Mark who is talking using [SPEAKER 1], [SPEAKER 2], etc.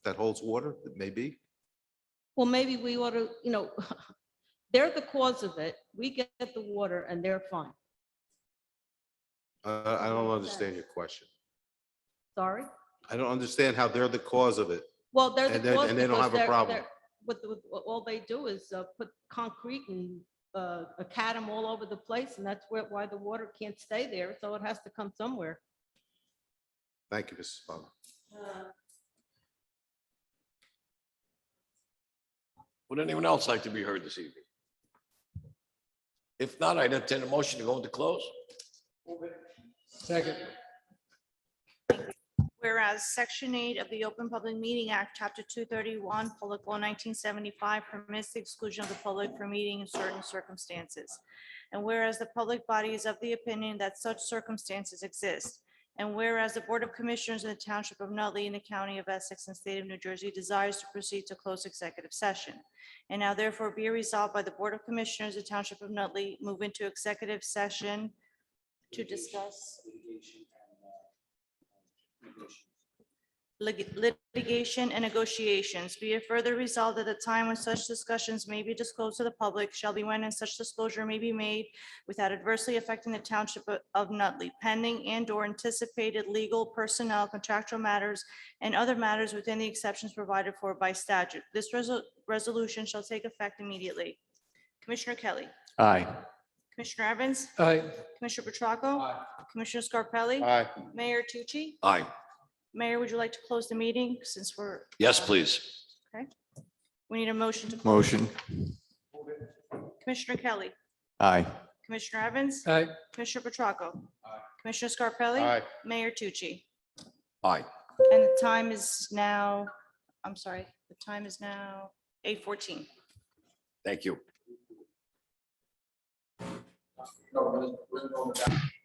[SPEAKER 1] that holds water, maybe?
[SPEAKER 2] Well, maybe we ought to, you know, they're the cause of it. We get the water and they're fine.
[SPEAKER 1] Uh, I don't understand your question.
[SPEAKER 2] Sorry?
[SPEAKER 1] I don't understand how they're the cause of it.
[SPEAKER 2] Well, they're the
[SPEAKER 1] And then-
[SPEAKER 2] cause.
[SPEAKER 1] and they don't
[SPEAKER 2] because
[SPEAKER 1] have a
[SPEAKER 2] they're-
[SPEAKER 1] problem.
[SPEAKER 2] they're- With, with, all they do is uh, put concrete and uh, a cadam all over the place and that's where, why the water can't stay there. So it has to come somewhere.
[SPEAKER 1] Thank you, Mrs. Butler.
[SPEAKER 3] Would anyone else like to be heard this evening? If not, I'd entertain a motion to go into close.
[SPEAKER 4] Second.
[SPEAKER 5] Whereas Section 8 of the Open Public Meeting Act, Chapter 231, Public Law 1975 permits the exclusion of the public from meeting in certain circumstances. And whereas the public body is of the opinion that such circumstances exist. And whereas the Board of Commissioners in the Township of Nutley in the County of Essex and State of New Jersey desires to proceed to close executive session. And now therefore be resolved by the Board of Commissioners of the Township of Nutley, move into executive session to discuss lig- litigation and negotiations. Be it further resolved that the time when such discussions may be disclosed to the public shall be when and such disclosure may be made without adversely affecting the township o- of Nutley pending and or anticipated legal personnel contractual matters and other matters within the exceptions provided for by statute. This resol- resolution shall take effect immediately. Commissioner Kelly.
[SPEAKER 4] Aye.
[SPEAKER 5] Commissioner Evans.
[SPEAKER 4] Aye.
[SPEAKER 5] Commissioner Petracco. Commissioner Scarpelli.
[SPEAKER 1] Aye.
[SPEAKER 5] Mayor Tucci.
[SPEAKER 3] Aye.
[SPEAKER 5] Mayor, would you like to close the meeting since we're?
[SPEAKER 3] Yes, please.
[SPEAKER 5] We need a motion to,
[SPEAKER 4] Motion.
[SPEAKER 5] Commissioner Kelly,
[SPEAKER 4] Aye.
[SPEAKER 5] Commissioner Evans,
[SPEAKER 4] Aye.
[SPEAKER 5] Commissioner Petracca. Commissioner Scarpelli.
[SPEAKER 1] Aye.
[SPEAKER 5] Mayor Tucci.
[SPEAKER 3] Aye.
[SPEAKER 5] And the time is now, I'm sorry, the time is now eight fourteen.
[SPEAKER 3] Thank you.